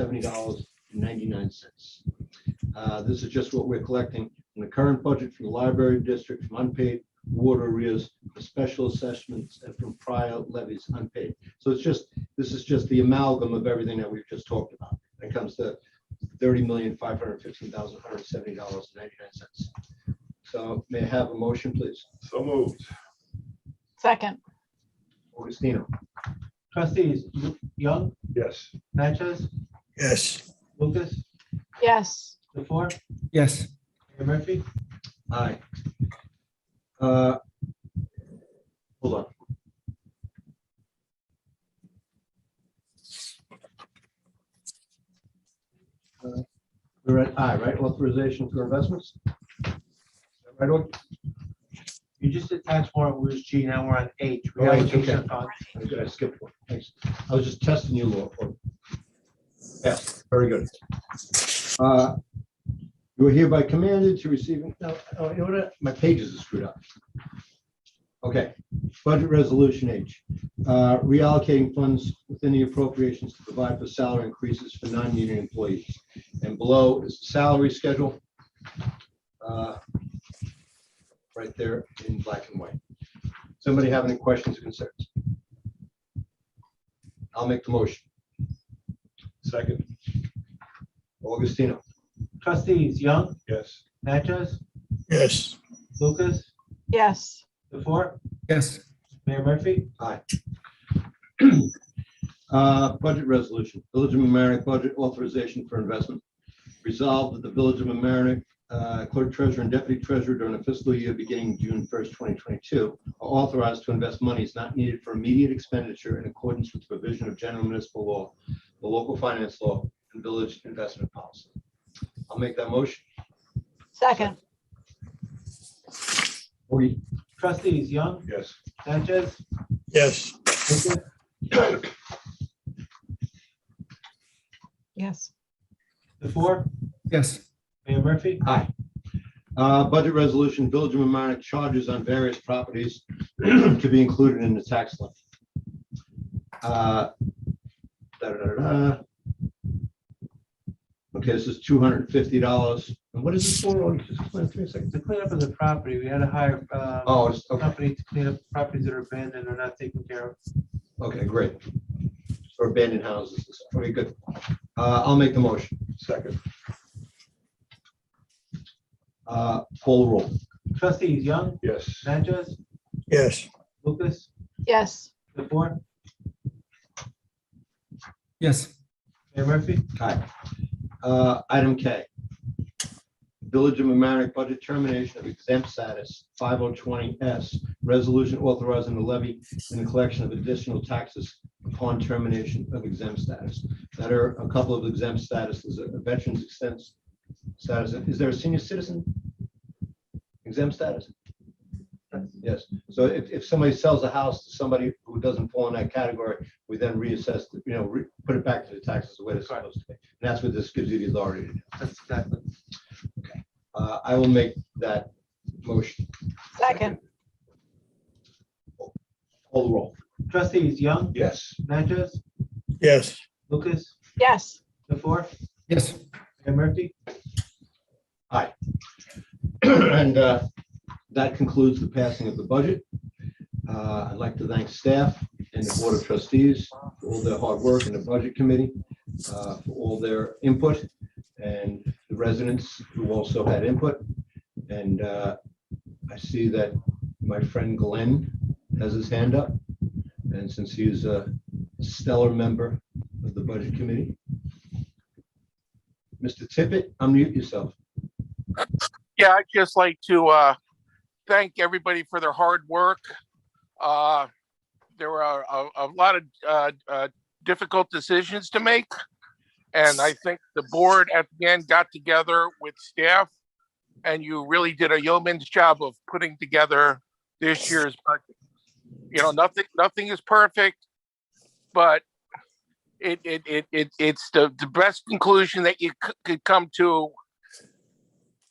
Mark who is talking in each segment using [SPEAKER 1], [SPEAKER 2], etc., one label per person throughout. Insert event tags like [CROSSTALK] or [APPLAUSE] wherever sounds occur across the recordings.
[SPEAKER 1] seventy dollars and ninety-nine cents. Uh, This is just what we're collecting in the current budget from the library district, from unpaid water arrears, for special assessments, and from prior levies unpaid. So it's just, this is just the amalgam of everything that we've just talked about. It comes to thirty million, five hundred fifteen thousand, one hundred seventy dollars and ninety-nine cents. So may I have a motion, please?
[SPEAKER 2] So moved.
[SPEAKER 3] Second,
[SPEAKER 1] Augustino?
[SPEAKER 4] Trustees Young,
[SPEAKER 2] Yes.
[SPEAKER 4] Natchez,
[SPEAKER 5] Yes.
[SPEAKER 4] Lucas,
[SPEAKER 3] yes,
[SPEAKER 4] the four,
[SPEAKER 5] Yes.
[SPEAKER 4] Mayor Murphy.
[SPEAKER 1] Aye. Uh, Hold on. Uh, We're at I, right? Authorization for investments? Right, Aug-
[SPEAKER 4] You just attached warrant, we was G, now we're on H.
[SPEAKER 1] Oh, H, okay.
[SPEAKER 4] reallocation of funds.
[SPEAKER 1] I did, I skipped one. Thanks. I was just testing you, Laura. for- Yes, very good. Uh, You are hereby commanded to receive, no, oh, you know what? My pages are screwed up. Okay, budget resolution H, Uh, reallocating funds within the appropriations to provide for salary increases for non-union employees. And below is the salary schedule. uh, Right there in black and white. Somebody have any questions or concerns? I'll make the motion.
[SPEAKER 2] Second.
[SPEAKER 1] Augustino?
[SPEAKER 4] Trustees Young,
[SPEAKER 2] Yes.
[SPEAKER 4] Natchez,
[SPEAKER 5] Yes.
[SPEAKER 4] Lucas,
[SPEAKER 3] yes,
[SPEAKER 4] the four,
[SPEAKER 5] Yes.
[SPEAKER 4] Mayor Murphy.
[SPEAKER 1] Uh, Budget resolution, Village of mamaroneck budget authorization for investment. Resolved that the Village of mamaroneck uh clerk treasurer and deputy treasurer during the fiscal year beginning June 1st, 2022, are authorized to invest monies not needed for immediate expenditure in accordance with the provision of general municipal law, the local finance law, and village investment policy. I'll make that motion.
[SPEAKER 3] second,
[SPEAKER 1] Augie?
[SPEAKER 4] Trustees Young,
[SPEAKER 2] Yes.
[SPEAKER 4] Natchez,
[SPEAKER 5] Yes.
[SPEAKER 4] Lucas,
[SPEAKER 3] yes,
[SPEAKER 4] the four,
[SPEAKER 5] Yes.
[SPEAKER 4] Mayor Murphy.
[SPEAKER 1] Uh, Budget resolution, Village of Amerenik charges on various properties [CLEARS THROAT] to be included in the tax levy. Uh, da-da-da-da. Okay, this is two hundred and fifty dollars. And what is this for? Oh, just explain it to me a second.
[SPEAKER 4] To clean up of the property, we had to hire a
[SPEAKER 1] Oh, it's- okay,
[SPEAKER 4] company to clean up properties that are abandoned or not taken care of.
[SPEAKER 1] okay, great. For abandoned houses and stuff. Okay, good. Uh, I'll make the motion.
[SPEAKER 2] Second.
[SPEAKER 1] Uh, Call the roll.
[SPEAKER 4] Trustees Young,
[SPEAKER 2] Yes.
[SPEAKER 4] Natchez,
[SPEAKER 5] Yes.
[SPEAKER 4] Lucas,
[SPEAKER 3] yes,
[SPEAKER 4] the four,
[SPEAKER 5] Yes.
[SPEAKER 4] Mayor Murphy.
[SPEAKER 1] Aye. Uh, Item K. Village of mamaroneck budget termination of exempt status, 5020S, resolution authorizing the levy and the collection of additional taxes upon termination of exempt status. That are a couple of exempt statuses, a veterans exempt status. Is there a senior citizen exempt status? Yes. So if, if somebody sells a house to somebody who doesn't fall in that category, we then reassess, the- you know, re- put it back to the taxes the way it's supposed to be. And that's what this gives you the authority to do.
[SPEAKER 4] That's exactly.
[SPEAKER 1] Uh, I will make that motion.
[SPEAKER 3] second,
[SPEAKER 1] Call the roll.
[SPEAKER 4] Trustees Young,
[SPEAKER 2] Yes.
[SPEAKER 4] Natchez,
[SPEAKER 5] Yes.
[SPEAKER 4] Lucas,
[SPEAKER 3] yes,
[SPEAKER 4] the four,
[SPEAKER 5] Yes.
[SPEAKER 4] Mayor Murphy.
[SPEAKER 1] [CLEARS THROAT] And uh, that concludes the passing of the budget. Uh, I'd like to thank staff and the Board of Trustees for all their hard work and the Budget Committee uh, for all their input and the residents who also had input. And uh, I see that my friend Glenn has his hand up. And since he is a stellar member of the Budget Committee. Mr. Tippett, unmute yourself.
[SPEAKER 6] Yeah, I'd just like to uh, thank everybody for their hard work. Uh, There were a, a- a lot of uh, uh, difficult decisions to make. And I think the board at the end got together with staff and you really did a yeoman's job of putting together this year's budget. You know, nothing, nothing is perfect, but it, it, it, it, it's the, the best conclusion that you c- could come to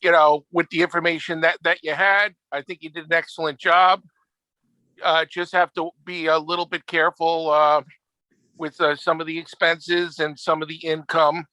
[SPEAKER 6] you know, with the information that that you had, I think you did an excellent job. Uh, just have to be a little bit careful uh, with uh, some of the expenses and some of the income.